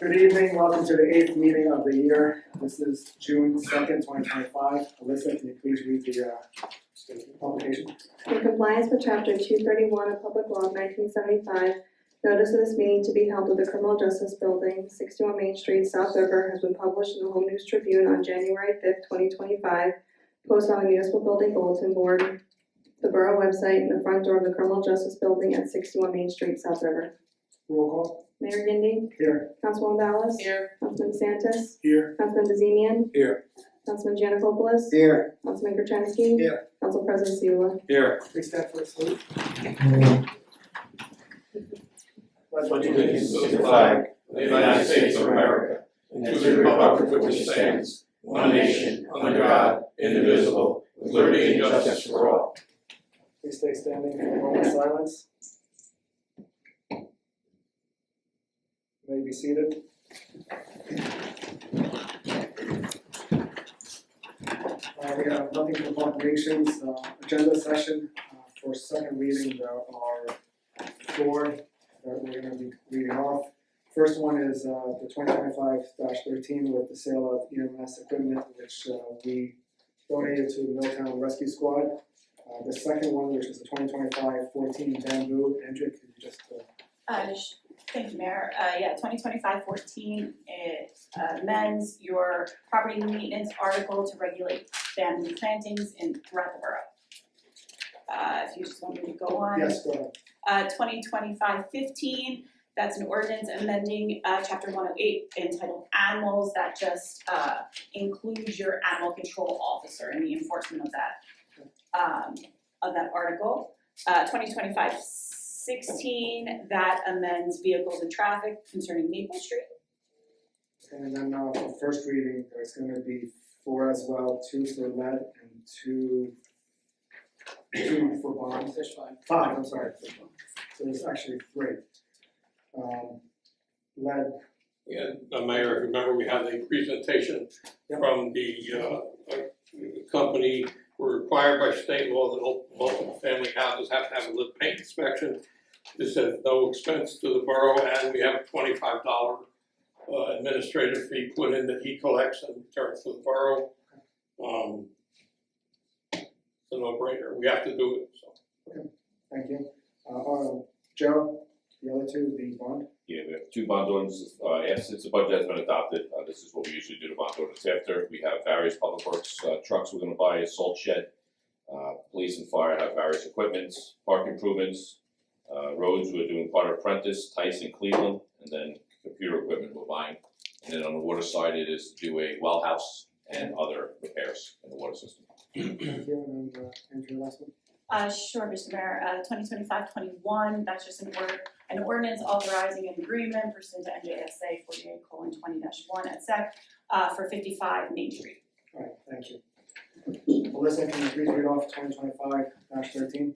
Good evening, welcome to the eighth meeting of the year. This is June second, twenty twenty-five. Alyssa, can you please read the uh, publication? In compliance with chapter two thirty-one of Public Law nineteen seventy-five, notice of this meeting to be held at the Criminal Justice Building, sixty-one Main Street, South River, has been published in the Home News Tribune on January fifth, twenty twenty-five, posted on the municipal building bulletin board, the borough website, and the front door of the Criminal Justice Building at sixty-one Main Street, South River. Roll call. Mayor Gindy, Here. Councilwoman Ballas. Here. Councilman DeSantis, Here. Councilman Bazemian. Here. Councilman Janikopoulos. Here. Councilman Gertenski. Here. Council President Seula. Here. Please stand for a salute. allegiance to the flag of the United States of America and to the republic for which it stands, one nation, under God, indivisible, with liberty and justice for all. Please stay standing for a moment of silence. May be seated. Uh, we have nothing for proclamations, uh, agenda session, uh, for second reading, there are four that we're gonna be reading off. First one is, uh, the twenty twenty-five thirteen with the sale of EMS equipment, which, uh, we donated to the Milltown Rescue Squad. Uh, the second one, which is the 2025-14 bamboo, Andrew, could you just, uh, Uh, sh- thank you, Mayor. Uh, yeah, 2025-14 it uh, amends your property maintenance article to regulate bamboo plantings in throughout the borough. Uh, if you just want me to go on. yes, go ahead. Uh, 2025-15. that's an ordinance amending, uh, chapter one oh eight entitled Animals that just, uh, includes your animal control officer in the enforcement of that, um, of that article. Uh, 2025-16. that amends vehicles and traffic concerning Maple Street. And then, uh, for first reading, there's gonna be four as well, two for lead and two, two for bond. Fish fine. Five, I'm sorry. So there's actually three. Um, lead, And uh, Mayor, if you remember, we had a presentation Yep. from the uh, uh, company. We're required by state law that all multi-family houses have to have a lead paint inspection. This is no expense to the borough and we have a twenty-five dollar uh, administrative fee put in that he collects and returns to the borough. Um, It's a no-brainer, we have to do it, so. thank you. Uh, uh, Joe, the other two, the bond, Yeah, we have two bond ordinances, uh, yes, since the budget has been adopted, uh, this is what we usually do to bond ordinance after, we have various public works, uh, trucks we're gonna buy, a salt shed. Uh, police and fire have various equipments, park improvements, uh, roads, we're doing Carter Prentice, Tyson, Cleveland, and then computer equipment we're buying. And then on the water side, it is to do a well house and other repairs in the water system. thank you, and then, uh, Andrew, last one. Uh, sure, Mr. Mayor, uh, 2025-21. that's just an order, an ordinance authorizing an agreement pursuant to NJSA forty-eight twenty one at SEC, uh, for fifty-five Main Street. Alright, thank you. Melissa, can you please read off twenty twenty-five thirteen?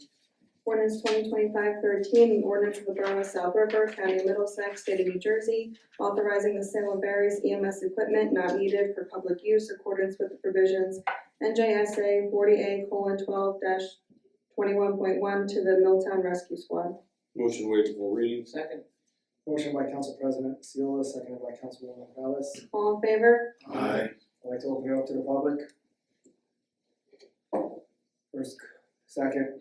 Ordinance 2025-13, an ordinance of the Borough of South River, County of Middlesex, State of New Jersey, authorizing the sale of various EMS equipment not needed for public use in accordance with the provisions NJSA forty A colon twelve twenty-one point one to the Milltown Rescue Squad. Motion waive full reading. Second. Motion by Council President Seola, seconded by Councilwoman Ballas. All in favor? Aye. I'd like to open it up to the public. First, second,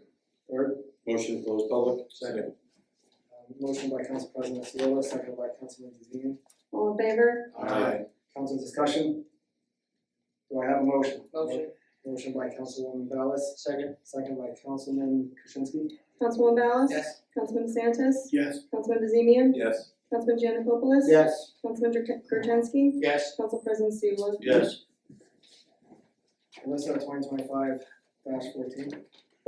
third, Motion to close public. Second. um, motion by Council President Seola, seconded by Councilman DeZemian. All in favor? Aye. Council discussion? Do I have a motion? Motion. Motion by Councilwoman Ballas, Second. second by Councilman Krasinski. Councilwoman Ballas? Yes. Councilman DeSantis? Yes. Councilman DeZemian? Yes. Councilman Janikopoulos? Yes. Councilman Ger- Gertenski? Yes. Council President Seula? Yes. Melissa, twenty twenty-five fourteen.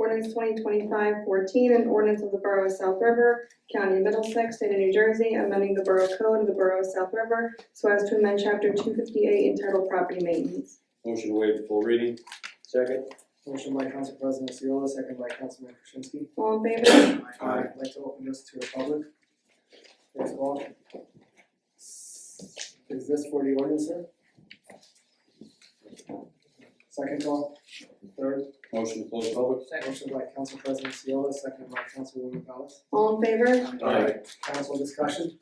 Ordinance 2025-14, an ordinance of the Borough of South River, County of Middlesex, State of New Jersey, amending the Borough Code of the Borough of South River so as to amend Chapter two fifty-eight entitled Property Maintenance. Motion waive full reading. Second. Motion by Council President Seola, second by Councilman Krasinski. All in favor? Aye. I'd like to open this to the public. First of all, is this for the ordinance, sir? Second call, third, Motion to close public. Second. motion by Council President Seola, second by Councilwoman Ballas. All in favor? Aye. Council discussion?